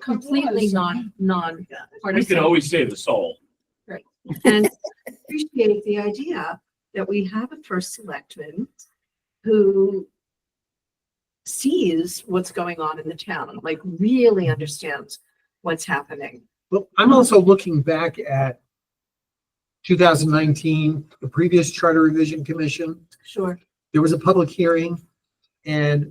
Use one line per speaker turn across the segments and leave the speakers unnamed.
completely non, non
We can
partisan.
always save the soul.
And I appreciate the idea that we have a first selectman who sees what's going on in the town, like really understands what's happening.
Well, I'm also looking back at two thousand nineteen, the previous Charter Revision Commission.
Sure.
There was a public hearing and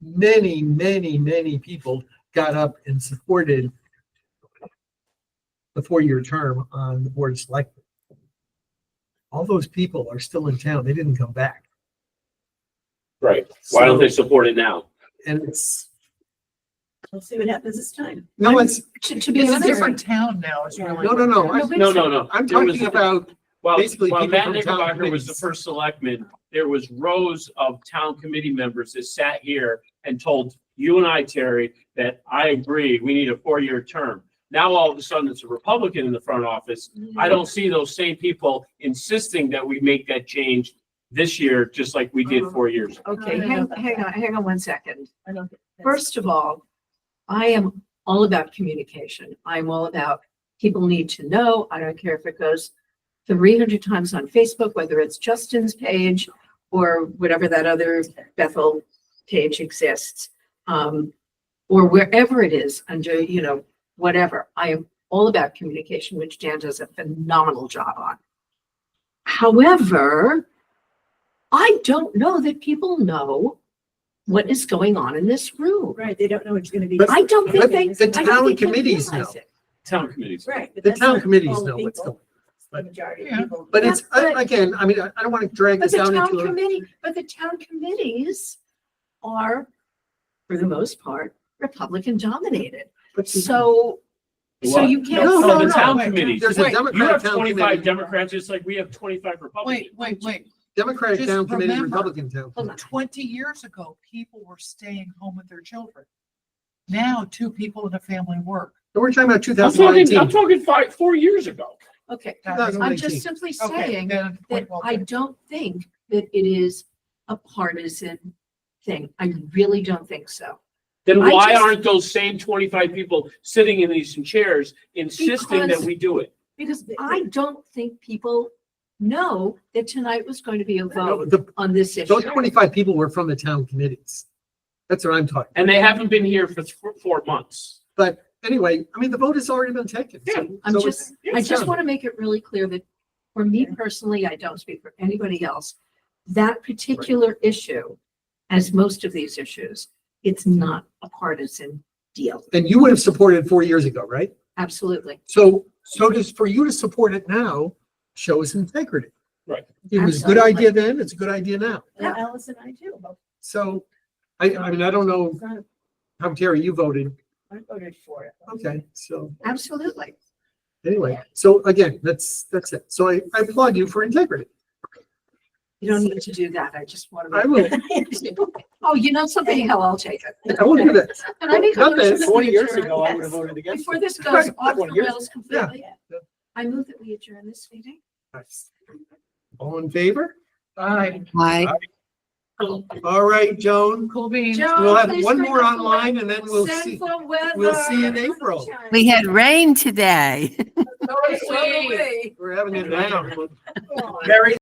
many, many, many people got up and supported the four-year term on the Board of Selectmen. All those people are still in town. They didn't come back.
Right. Why
So-
don't they support it now?
And it's,
We'll see what happens this time.
no, it's,
To, to be
It's a
honest,
different town now, it's really.
no, no, no.
No,
I'm-
but-
No, no, no.
I'm
There was-
talking about
Well,
basically
while
people
Matt
from town
Nickelbacker was the
committees.
first selectman, there was rows of town committee members that sat here and told you and I, Terry, that I agree, we need a four-year term. Now, all of a sudden, it's a Republican in the front office. I don't see those same people insisting that we make that change this year, just like we
Uh-huh.
did four years.
okay,
No, no,
hang,
no.
hang on, hang on one second.
I don't think that's-
First of all, I am all about communication. I'm all about people need to know. I don't care if it goes three hundred times on Facebook, whether it's Justin's page or whatever that other Bethel page exists. Um, or wherever it is under, you know, whatever. I am all about communication, which Dan does a phenomenal job on. However, I don't know that people know what is going on in this room.
Right, they don't know it's gonna be.
But-
I don't think
But
they.
the
I don't
town
think they
committees
realize
know.
it.
Town committees.
Right. but
The
that's
town
not
committees
all
know what's
people.
going
It's the Majority of
Yeah.
people.
But it's,
Yeah,
I-
but-
again, I mean, I I don't want to drag
But
this
the
down
town
into a.
committee, but the town committees are, for the most part, Republican dominated.
but-
So, so
What?
you can't.
No,
So
no,
the
no.
town committees,
There's a
Wait,
you
Democratic
have
town
twenty-five
committee,
Democrats, just like we have twenty-five Republicans.
Wait, wait, wait.
Democratic
just
town committee,
remember-
Republican town.
Hold on.
Twenty years ago, people were staying home with their children. Now, two people in a family work.
So We're talking about two
I'm
thousand
talking, I'm
nineteen.
talking five, four years ago.
Okay,
That's
I'm just simply saying that I don't think that it is a partisan thing. I really don't think so.
Then
I
why
just-
aren't those same twenty-five people sitting in these chairs insisting that
Because-
we do it?
Because I don't think people know that tonight was going to be a vote
Those
on this issue.
twenty-five people were from the town committees. That's what I'm talking.
And they haven't been here for th- four months.
But anyway, I mean, the vote has already been taken. so-
Yeah,
I'm
so
just-
it's-
I
it's
just
done.
want to make it really clear that for me personally, I don't speak for anybody else. That particular issue, as most of these issues, it's not a partisan deal.
And you would have supported four years ago, right?
Absolutely.
So, so just for you to support it now shows integrity.
Right.
It was a good
Absolutely.
idea then, it's a good idea now.
And Alice and I too, but
So I, I mean, I don't know
it's not-
how Terry, you voted.
I voted for it.
Okay, so.
Absolutely.
Anyway, so again, that's, that's it. So I, I applaud you for integrity.
You don't need to do that. I just want
I
to.
will,
Oh, you know something? Hell, I'll take it.
I will do that.
And I make a
Not
motion
that
that we adjourn.
ago, I would have
voted
Before this goes
Right.
off the
20 years
rails completely,
Yeah.
I move that we adjourn this meeting.
All in favor?
Bye,
Hi.
All right, Joan,
cool beans.
Joan,
we'll have
please
one
bring
more
us the
online and then we'll see.
Sinful weather.
we'll see in April.
We had rain today.
So are we.
We're having it now.
Oh, my
Mary,